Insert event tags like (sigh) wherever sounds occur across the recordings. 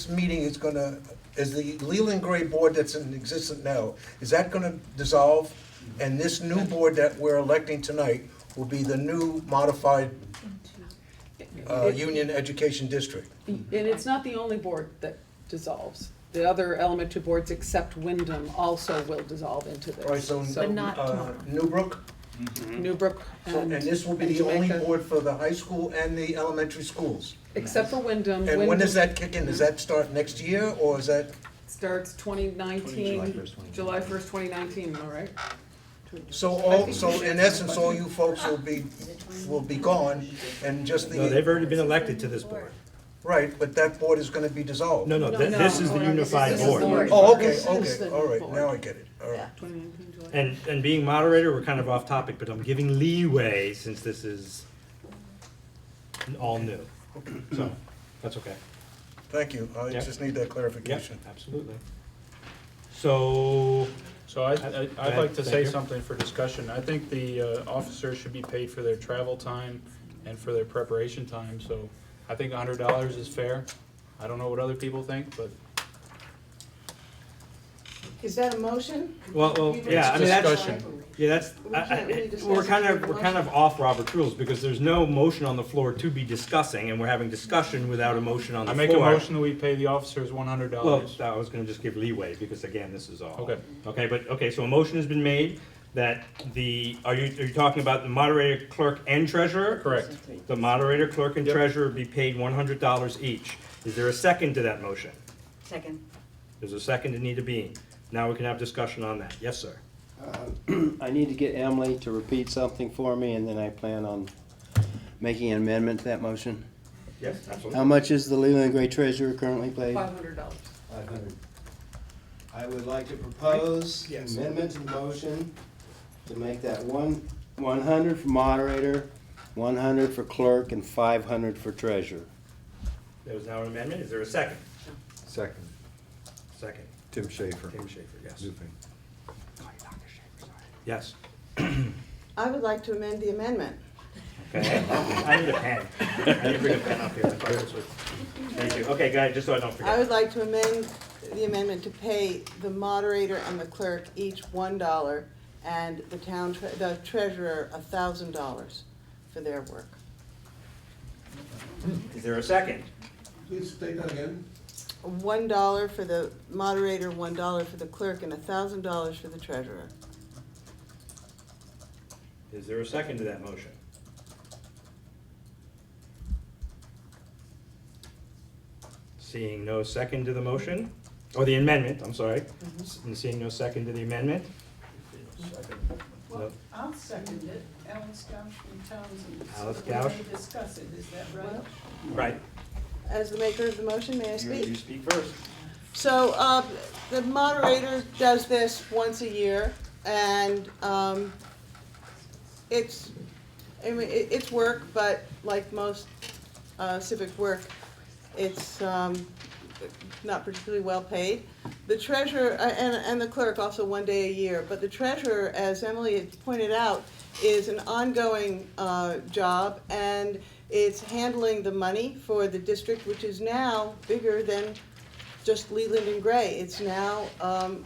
This meeting is gonna, is the Leland Gray Board that's in existence now, is that gonna dissolve? And this new board that we're electing tonight will be the new modified uh, It- Union Education District? And it's not the only board that dissolves. The other elementary boards except Wyndham also will dissolve into All right, this. so, So But not uh, tomorrow. Newbrook, Newbrook and Um, and, this will be the only Jamaica. board for the high school and the elementary schools. except for Wyndham. And when does Wyndham that kick in? Does that start next year, or is that, Starts twenty July nineteen, 1st, 2019. July first, twenty nineteen, all right? so all, so in essence, all you folks will be, will be gone, and just the. No, they've already been elected to this board. Right, but that board is gonna be dissolved. No, no, th- No, this is no, the no, this is unified the board. board. Oh, okay, This is okay, the all right, board. now I get it, all right. Twenty nineteen, July. And, and being moderator, we're kind of off topic, but I'm giving leeway since this is all new. So, that's okay. Thank you, I Yeah. just need that Yep, clarification. absolutely. So, So I, I- I'd like to Thank say you. something for discussion. I think the uh, officers should be paid for their travel time and for their preparation time, so I think hundred dollars is fair. I don't know what other people think, but Is that a motion? well, well, yeah, I mean, it's that's, discussion. yeah, that's, I- I- we're kind of, we're kind of off Robert's rules because there's no motion on the floor to be discussing and we're having discussion without a motion on the I floor. make a motion that we pay the officers one hundred Well, dollars. I was gonna just give leeway, because again, this is all. Okay. Okay, but, okay, so a motion has been made that the, are you, are you talking about the moderator, clerk, and treasurer? Correct. The moderator, clerk, and Yep. treasurer be paid one hundred dollars each. Is there a second to that motion? Second. There's a second to Nita Bean. Now we can have discussion on that. Yes, sir. (clears throat) I need to get Emily to repeat something for me, and then I plan on making an amendment to that motion. Yes, How absolutely. much is the Leland Gray treasurer currently paid? Five hundred dollars. Five hundred. I would like to propose an Yes. amendment to the motion to make that one, one hundred for moderator, one hundred for clerk, and five hundred for treasurer. There was now an amendment. Is there a second? Second. Second. Tim Schaefer. Tim Schaefer, yes. Yes. I would like to amend the amendment. Okay. (laughs) I need a pen. I need to bring a pen up here. I thought this was- Thank you. Okay, guys, just so I don't forget. I would like to amend the amendment to pay the moderator and the clerk each one dollar and the town, tre- the treasurer a thousand dollars for their work. Is there a second? Please state that again. One dollar for the moderator, one dollar for the clerk, and a thousand dollars for the treasurer. Is there a second to that motion? Seeing no second to the motion, or the amendment, I'm sorry. S- and Seeing no second to the amendment? No. I'll second it, Alice Gouch and Townsend. Alice We're gonna Gouch. Discuss it, is that right? Right. As the maker of the motion, may I You speak? you speak first. So, uh, the moderator does this once a year, and, um, it's, I mean, it, it's work, but like most, uh, civic work, it's, um, not particularly well-paid. The treasurer, uh, and, and the clerk also one day a year, but the treasurer, as Emily had pointed out, is an ongoing, uh, job, and it's handling the money for the district, which is now bigger than just Leland and Gray. It's now um,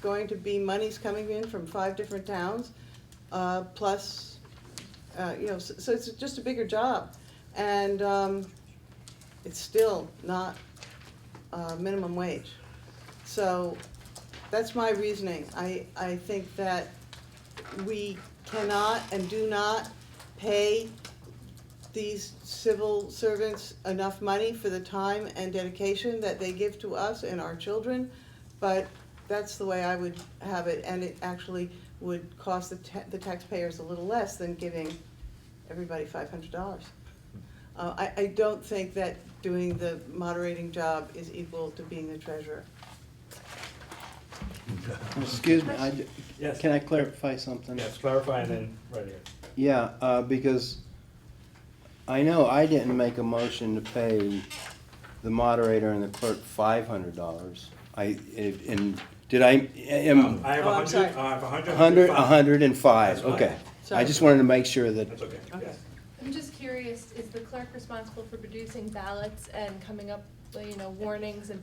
going to be monies coming in from five different towns, uh, plus, uh, you know, so so it's just a bigger job. And um, it's still not uh, minimum wage. So that's my reasoning. I, I think that we cannot and do not pay these civil servants enough money for the time and dedication that they give to us and our children, but that's the way I would have it, and it actually would cost the ta- the taxpayers a little less than giving everybody five hundred dollars. Uh, I, I don't think that doing the moderating job is equal to being the treasurer. Excuse me, I d- Yes. can I clarify something? Yes, clarify and then, right here. Yeah, uh, because I know I didn't make a motion to pay the moderator and the clerk five hundred dollars. I, it- and, did I, am, Um, I have a Oh, I'm hundred, sorry. I have a hundred. a Um, hundred, a five. hundred and five, That's fine. okay. I Sorry. just wanted to make sure that, That's okay, yes. I'm just curious, is the clerk responsible for producing ballots and coming up you know, warnings and